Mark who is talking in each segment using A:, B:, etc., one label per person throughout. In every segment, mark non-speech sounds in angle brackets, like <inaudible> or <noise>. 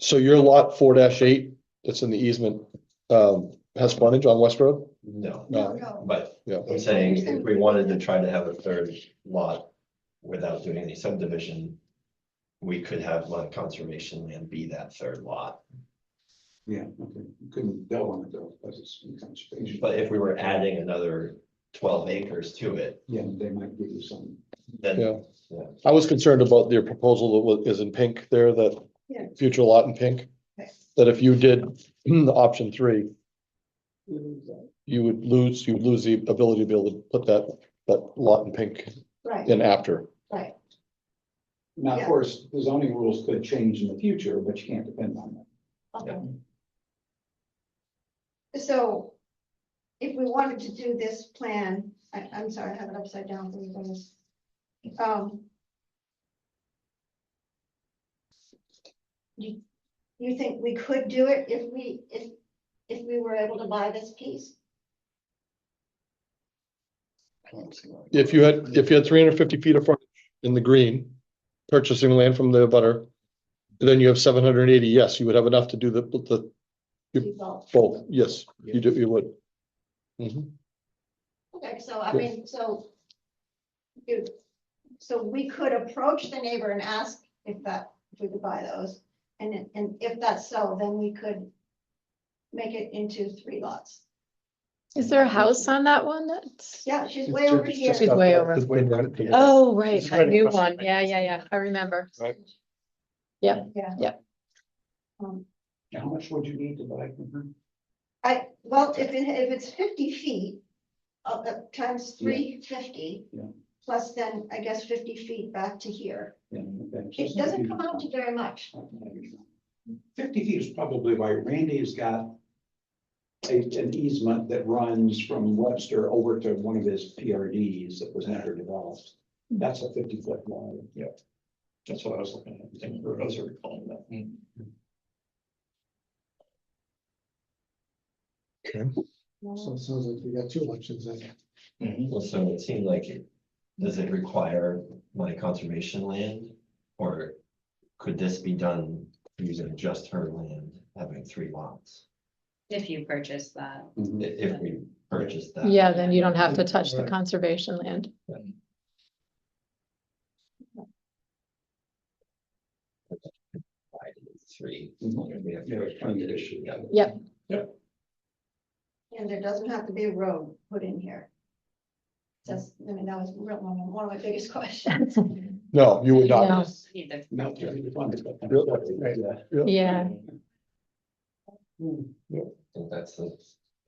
A: So your lot four eight, that's in the easement, um, has frontage on West Road?
B: No,
A: No.
C: no.
B: but
A: Yeah,
B: I'm saying if we wanted to try to have a third lot without doing any subdivision, we could have like conservation land be that third lot.
D: Yeah, okay, couldn't go on it though, because it's in conservation,
B: But if we were adding another twelve acres to it,
D: yeah, they might give you some.
B: then
A: yeah. I was concerned about your proposal that was, is in pink there, that
C: Yeah.
A: future lot in pink,
C: Okay.
A: that if you did <clears throat> option three, you would lose, you'd lose the ability to be able to put that, that lot in pink
C: Right,
A: in after.
C: right,
D: Now, of
C: Yeah.
D: course, the zoning rules could change in the future, but you can't depend on that.
C: okay. So if we wanted to do this plan, I, I'm sorry, I have it upside down for you guys. Um. You, you think we could do it if we, if, if we were able to buy this piece?
A: If you had, if you had three hundred fifty feet of frontage in the green, purchasing land from the butter, then you have seven hundred and eighty, yes, you would have enough to do the, the, Yep.
C: Do both?
A: both, yes, you do, you would. Mhm.
C: Okay, so I mean, so. you- so we could approach the neighbor and ask if that, if we could buy those, and, it- and if that's so, then we could. Make it into three lots.
E: Is there a house on that one? That's,
C: Yeah, she's
A: It's
C: way over
A: just-
C: here.
A: just
E: She's
A: got
E: way
A: that-
E: over.
A: it's way down at the-
B: Yeah.
E: oh, right,
F: It's
E: I
F: right
E: knew
F: across the
E: one.
F: street.
E: Yeah, yeah, yeah. I remember.
A: Right.
E: Yeah,
C: Yeah.
E: yeah.
C: Um,
D: Now, How much would you need to buy from her?
C: I, well, if it, if it's fifty feet, uh, uh, times
D: Yeah.
C: three fifty.
D: Yeah.
C: Plus then, I guess, fifty feet back to here.
D: Yeah, okay, so it's
C: It
D: not a
C: doesn't
D: huge
C: come out
D: amount.
C: to very much.
D: Fifty feet is probably why Randy's got a, an easement that runs from Webster over to one of his PRDs that was never developed. That's a fifty foot line.
F: That's what I was looking at, I think Rose was recalling that.
D: Mm.
G: So it sounds like we got two elections then.
A: Mm-hmm.
B: well, so it seemed like it, does it require my conservation land? Or could this be done using just her land, having three lots,
H: If you purchase that,
B: i- if we purchased that?
E: Yeah, then you don't have to touch the
G: Right.
E: conservation land.
B: divided into Three.
A: Mm-hmm.
D: Mhm.
B: We have
D: Yeah,
B: to
D: it's
B: find
D: kind
B: the
D: of
B: issue, yeah.
C: And there doesn't have to be a road put in here. Just, I mean, that was real, one of- one of my biggest <laughs> questions.
A: No, you would
E: No.
A: not.
H: need the
D: Not to be funded, but.
A: Really?
E: Yeah,
D: Mm-hmm.
B: I think that's the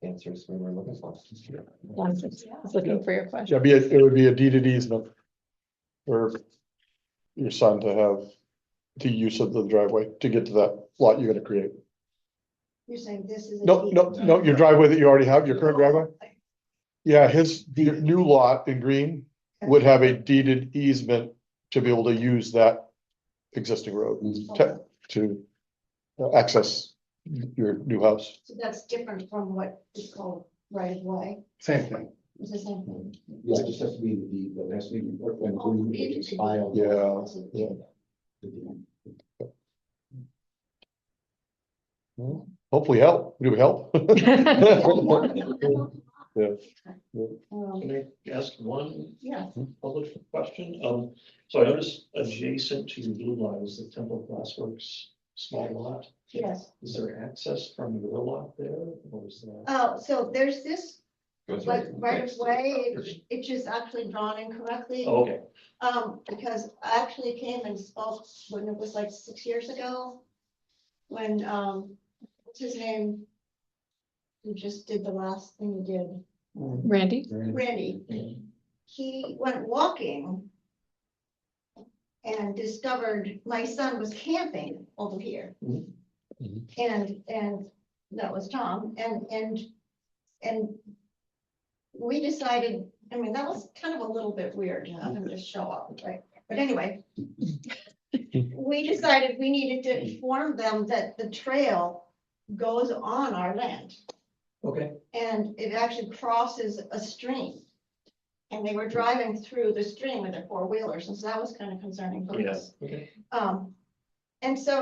B: answers we were looking for.
E: I was I was looking for your question.
A: Yeah, be, a- it would be a deed at easement. For your son to have the use of the driveway to get to that lot you're gonna create.
C: You're saying this is. a
A: No,
C: deed.
A: no, no, your driveway that you already have, your current driveway? Yeah, his, your new lot in green would have a deeded easement to be able to use that existing road
C: Oh,
A: to, to access your new house.
C: So that's different from what is called right of way.
G: Same thing.
C: It's the same thing.
D: Yeah, it just has to be the deed, though, it has to be. in Brooklyn,
C: Oh,
D: Green,
C: it
D: which is
C: is.
D: filed.
A: Yeah, yeah. Hopefully help, it would help. <laughs> Yeah.
C: Um,
F: Can I ask one
C: Yeah,
F: public question? Um, so I noticed adjacent to Blue Line is the Temple Glassworks small lot.
C: yes.
F: Is there access from your lot there or is that?
C: Oh, so there's this,
B: Goes
C: like, right
B: next to
C: of
B: the
C: way,
B: property.
C: it just actually drawn incorrectly.
F: Oh, Okay,
C: Um, because I actually came and spoke when it was like six years ago. When, um, what's his name? Who just did the last thing he did,
E: <laughs>
C: mm.
E: Randy?
C: Randy. He went walking. And discovered my son was camping over here.
F: Mhm.
A: Mhm.
C: And, and that was Tom and, and, and. We decided, I mean, that was kind of a little bit weird, have him just show up, right? But anyway. We decided we needed to inform them that the trail goes on our land
F: okay.
C: and it actually crosses a stream. And they were driving through the stream with their four wheelers, and so that was kind of concerning for
F: Yeah,
C: us.
F: okay.
C: Um, and so